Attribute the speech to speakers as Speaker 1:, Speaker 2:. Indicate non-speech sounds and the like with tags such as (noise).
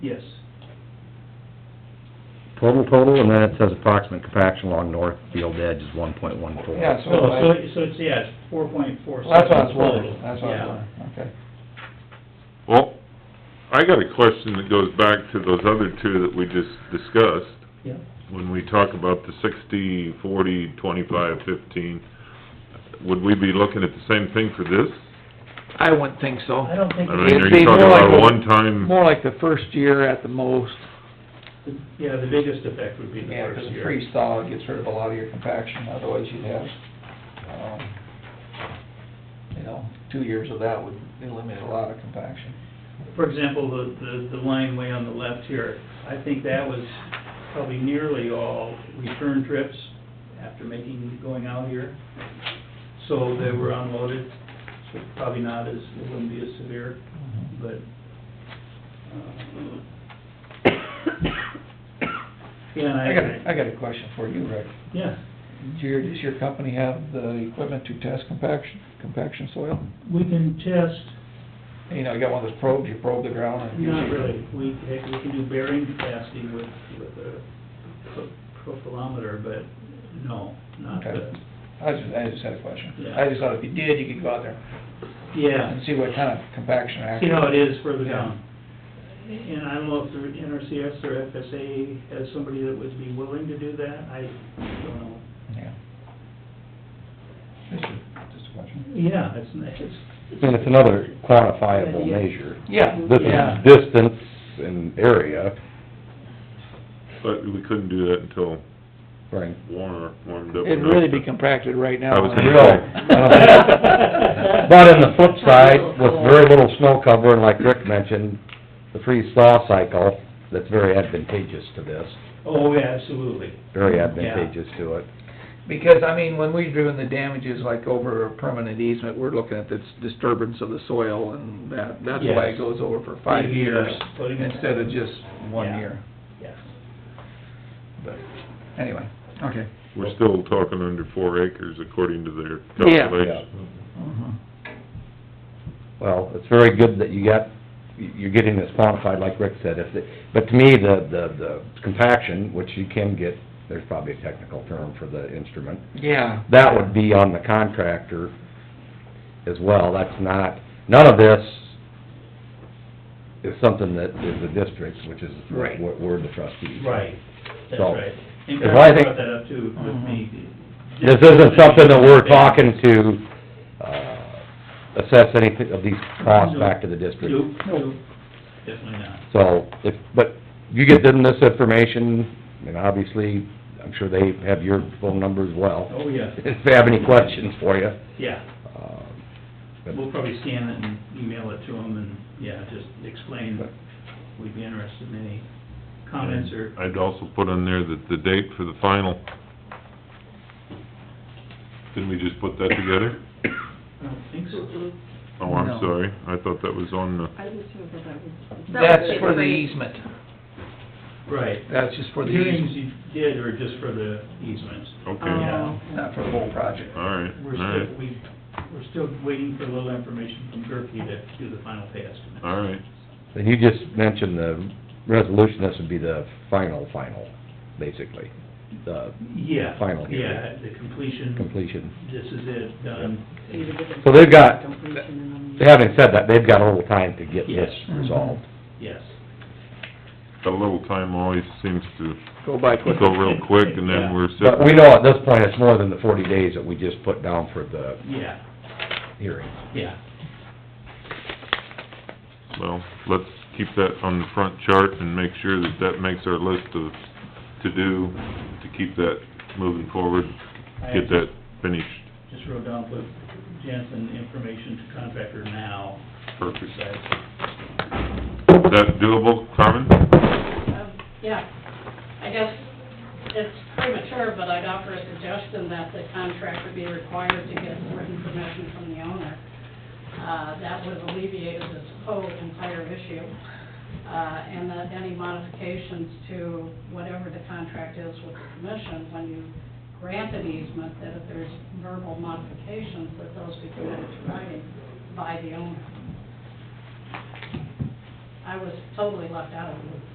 Speaker 1: total total, and then it says approximate compaction along north field edge is one point one four.
Speaker 2: Yeah, so,
Speaker 3: So, so,
Speaker 2: I-
Speaker 3: so it's, yeah, it's four point four
Speaker 2: well, that's
Speaker 3: seven
Speaker 2: what I was
Speaker 3: total.
Speaker 2: wondering, that's what I was
Speaker 3: Yeah.
Speaker 2: wondering, okay.
Speaker 4: Well, I got a question that goes back to those other two that we just discussed.
Speaker 3: Yeah.
Speaker 4: When we talk about the sixty, forty, twenty-five, fifteen, would we be looking at the same thing for this?
Speaker 5: I wouldn't think so.
Speaker 3: I don't think,
Speaker 4: I mean, are
Speaker 5: It'd be
Speaker 4: you talking
Speaker 5: more
Speaker 4: about a
Speaker 5: like-
Speaker 4: one-time,
Speaker 5: More like the first year at the most.
Speaker 3: yeah, the biggest effect would be the
Speaker 2: Yeah,
Speaker 3: first
Speaker 2: because a
Speaker 3: year.
Speaker 2: freeze thaw gets rid of a lot of your compaction, otherwise you'd have, um, you know, two years of that would eliminate a lot of compaction.
Speaker 3: For example, the, the, the line way on the left here, I think that was probably nearly all return trips after making, going out here. So they were unloaded, so probably not as, it wouldn't be as severe, but, uh, (coughs) yeah, and
Speaker 2: I got, a-
Speaker 3: I,
Speaker 2: I got a question for you, Rick.
Speaker 3: yeah,
Speaker 2: Do your, does your company have the equipment to test compaction, compaction soil?
Speaker 3: we can test
Speaker 2: You know, you got one of those probes, you probe the ground and...
Speaker 3: Not really. We, heck, we can do bearing capacity with, with a pro- profilometer, but no, not
Speaker 2: Okay.
Speaker 3: the,
Speaker 2: I just, I just had a question.
Speaker 3: Yeah.
Speaker 2: I just thought if you did, you could go out there
Speaker 3: yeah.
Speaker 2: and see what kind of compaction
Speaker 3: See
Speaker 2: actually...
Speaker 3: how it is further
Speaker 2: Yeah.
Speaker 3: down. And I don't know if the NRCS or FSA has somebody that would be willing to do that. I don't know.
Speaker 2: Yeah. Just a, just a question.
Speaker 3: Yeah, it's, it's.
Speaker 1: And it's another quantifiable measure.
Speaker 2: Yeah.
Speaker 1: This
Speaker 2: Yeah.
Speaker 1: is distance and area,
Speaker 4: but we couldn't do that until
Speaker 1: right?
Speaker 4: warmer, warmed up.
Speaker 5: It'd
Speaker 4: enough
Speaker 5: really be
Speaker 4: to-
Speaker 5: compacted right now.
Speaker 4: I was gonna
Speaker 1: Real. Uh, But on the flip side, with very little snow cover, and like Rick mentioned, the freeze thaw cycle, that's very advantageous to this,
Speaker 3: Oh, yeah, absolutely.
Speaker 1: very advantageous to it.
Speaker 5: Because, I mean, when we're doing the damages like over a permanent easement, we're looking at this disturbance of the soil and that, that's why
Speaker 3: Yes.
Speaker 5: it goes over for five
Speaker 3: Yeah,
Speaker 5: years
Speaker 3: putting it-
Speaker 5: instead of just one
Speaker 3: Yeah.
Speaker 5: year.
Speaker 3: Yes.
Speaker 5: But, anyway, okay.
Speaker 4: We're still talking under four acres according to their
Speaker 5: Yeah.
Speaker 4: calculations.
Speaker 3: Mm-hmm.
Speaker 5: Mhm.
Speaker 1: Well, it's very good that you got, you're getting this quantified, like Rick said, if, it- but to me, the, the, the compaction, which you can get, there's probably a technical term for the instrument,
Speaker 5: Yeah.
Speaker 1: that would be on the contractor as well, that's not, none of this is something that is the district, which is,
Speaker 5: Right.
Speaker 1: what we're the trustees.
Speaker 3: Right, that's
Speaker 1: So,
Speaker 3: right. And
Speaker 1: if I
Speaker 3: Kyle
Speaker 1: think- Mhm.
Speaker 3: brought that up too with me.
Speaker 1: This isn't something that we're talking to, uh, assess anything of these costs back to the district.
Speaker 3: Nope, nope, definitely not.
Speaker 1: So, if, but you get them this information, and obviously, I'm sure they have your phone number as well, (laughs)
Speaker 3: Oh, yeah,
Speaker 1: if they have any questions for you.
Speaker 3: yeah.
Speaker 1: Um, but-
Speaker 3: We'll probably scan it and email it to them and, yeah, just explain, we'd be interested in any comments or,
Speaker 4: I'd also put on there that the date for the final. Didn't we just put that together?
Speaker 3: I don't think so.
Speaker 4: Oh,
Speaker 5: No.
Speaker 4: I'm sorry, I thought that was on the,
Speaker 6: I was sure that that was.
Speaker 5: That's for the easement.
Speaker 3: Right.
Speaker 5: That's just for the
Speaker 3: Hearings
Speaker 5: easement.
Speaker 3: you did or just for the easements?
Speaker 4: okay,
Speaker 3: Yeah.
Speaker 6: Oh.
Speaker 2: Not for the whole project.
Speaker 4: all right,
Speaker 3: We're
Speaker 4: all right,
Speaker 3: still, we, we're still waiting for a little information from Gerke to do the final pay estimate.
Speaker 4: all right.
Speaker 1: And you just mentioned the resolution, this would be the final, final, basically, the
Speaker 3: Yeah.
Speaker 1: Final hearing.
Speaker 3: Yeah, the completion,
Speaker 1: completion.
Speaker 3: this is it, done.
Speaker 1: So they've got- Having said that, they've got a little time to get this
Speaker 3: Yes.
Speaker 1: resolved.
Speaker 3: Yes.
Speaker 4: A little time always seems to
Speaker 5: Go by quick.
Speaker 4: go real quick, and then we're sitting...
Speaker 1: But we know at this point, it's more than the forty days that we just put down for the
Speaker 3: Yeah,
Speaker 1: hearing.
Speaker 3: yeah.
Speaker 4: Well, let's keep that on the front chart and make sure that that makes our list of to-do, to keep that moving forward,
Speaker 3: I
Speaker 4: get that finished
Speaker 3: Just wrote down, put Jensen information to contractor now,
Speaker 4: perfect.
Speaker 3: besides
Speaker 4: That doable, Carmen?
Speaker 6: Yeah, I guess it's premature, but I'd offer a suggestion that the contractor be required to get written permission from the owner. Uh, that would alleviate this whole entire issue, uh, and that any modifications to whatever the contract is with the commission, when you grant an easement, that if there's verbal modifications, that those be committed to writing by the owner. I was totally left out of the loop.